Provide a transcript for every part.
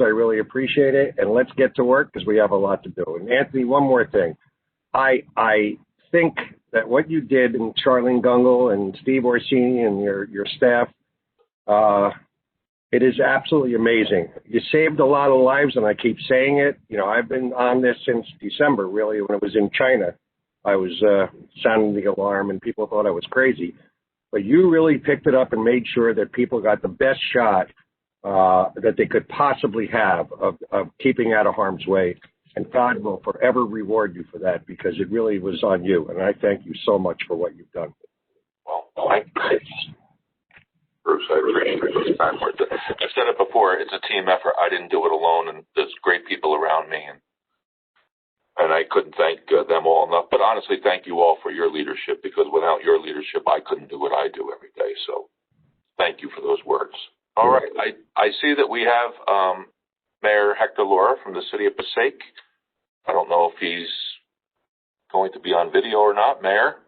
I really appreciate it. And let's get to work because we have a lot to do. And Anthony, one more thing. I I think that what you did and Charlene Gungle and Steve Orsini and your your staff, uh, it is absolutely amazing. You saved a lot of lives, and I keep saying it. You know, I've been on this since December, really, when it was in China. I was uh, sounding the alarm, and people thought I was crazy. But you really picked it up and made sure that people got the best shot uh, that they could possibly have of, of keeping out of harm's way. And God will forever reward you for that because it really was on you. And I thank you so much for what you've done. Well, I, Bruce, I appreciate it. It's backwards. I've said it before. It's a team effort. I didn't do it alone, and there's great people around me, and and I couldn't thank uh, them all enough. But honestly, thank you all for your leadership because without your leadership, I couldn't do what I do every day. So, thank you for those words. All right. I, I see that we have um, Mayor Hector Laura from the city of Passaic. I don't know if he's going to be on video or not, Mayor.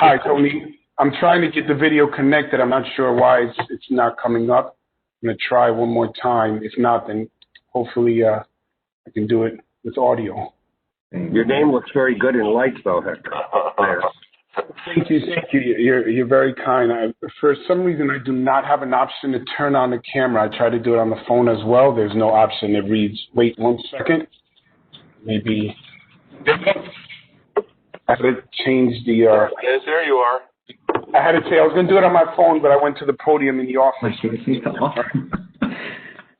Hi, Tony. I'm trying to get the video connected. I'm not sure why it's, it's not coming up. I'm going to try one more time. If not, then hopefully uh, I can do it with audio. Your name looks very good in lights, though, Hector. There. Thank you. Thank you. You're, you're very kind. I, for some reason, I do not have an option to turn on the camera. I try to do it on the phone as well. There's no option. It reads, wait one second. Maybe I had to change the, uh, Yes, there you are. I had to say I was going to do it on my phone, but I went to the podium in the office.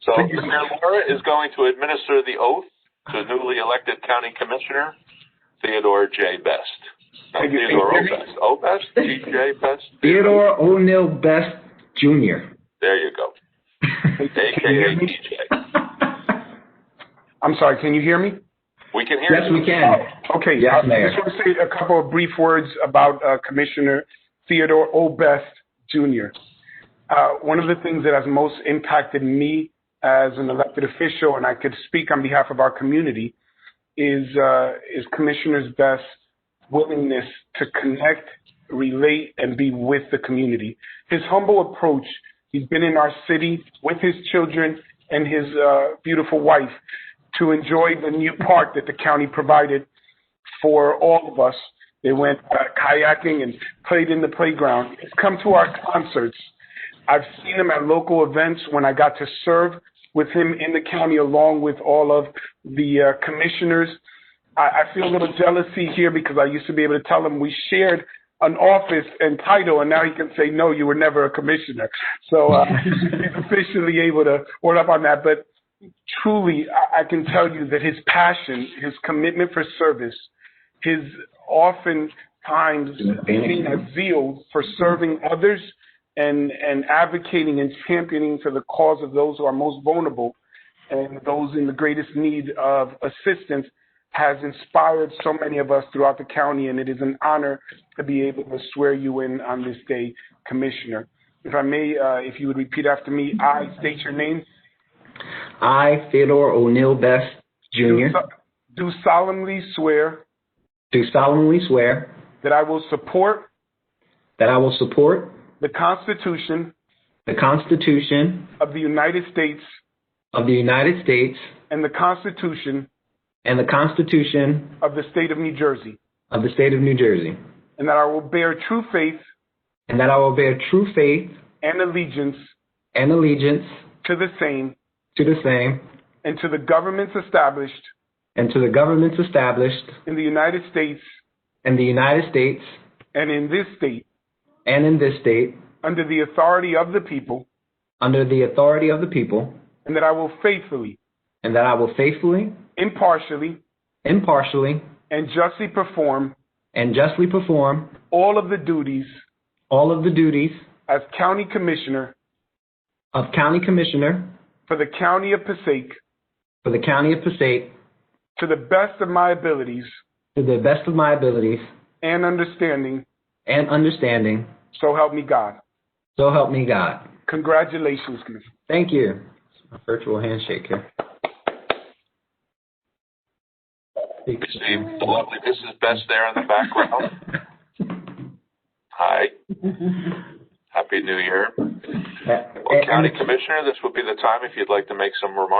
So Mayor Laura is going to administer the oath to newly elected county commissioner Theodore J. Best. Not Thank you. Theodore O. Thank you. Best. O. Best? T. J. Best? Theodore O'Neill Best Jr. There you go. AKA TJ. I'm sorry. Can you hear me? We can hear Yes, you. we can. Okay. Yes, uh, Mayor. I just want to say a couple of brief words about uh, Commissioner Theodore O. Best Jr. Uh, one of the things that has most impacted me as an elected official, and I could speak on behalf of our community, is uh, is Commissioner Best's willingness to connect, relate, and be with the community. His humble approach. He's been in our city with his children and his uh, beautiful wife to enjoy the new park that the county provided for all of us. They went uh, kayaking and played in the playground. He's come to our concerts. I've seen him at local events when I got to serve with him in the county along with all of the uh, commissioners. I, I feel a little jealousy here because I used to be able to tell him we shared an office and title, and now he can say, no, you were never a commissioner. So uh, he's officially able to word up on that. But truly, I, I can tell you that his passion, his commitment for service, his oftentimes being a zeal for serving others and, and advocating and championing for the cause of those who are most vulnerable and those in the greatest need of assistance has inspired so many of us throughout the county, and it is an honor to be able to swear you in on this day, Commissioner. If I may, uh, if you would repeat after me, I state your name. I, Theodore O'Neill Best Jr., Do solemnly swear do solemnly swear that I will support that I will support the Constitution the Constitution of the United States of the United States and the Constitution and the Constitution of the State of New Jersey, of the State of New Jersey, and that I will bear true faith and that I will bear true faith and allegiance and allegiance to the same to the same and to the governments established and to the governments established in the United States in the United States and in this state and in this state under the authority of the people, under the authority of the people, and that I will faithfully, and that I will faithfully, impartially, impartially, and justly perform and justly perform all of the duties all of the duties as County Commissioner of County Commissioner for the County of Passaic for the County of Passaic to the best of my abilities to the best of my abilities and understanding, and understanding. so help me God. So help me God. Congratulations, Commissioner. Thank you. A virtual handshake here. You see the lovely Mrs. Best there in the background. Hi. Happy New Year. Uh, Well, County and- Commissioner, this would be the time if you'd like to make some remarks.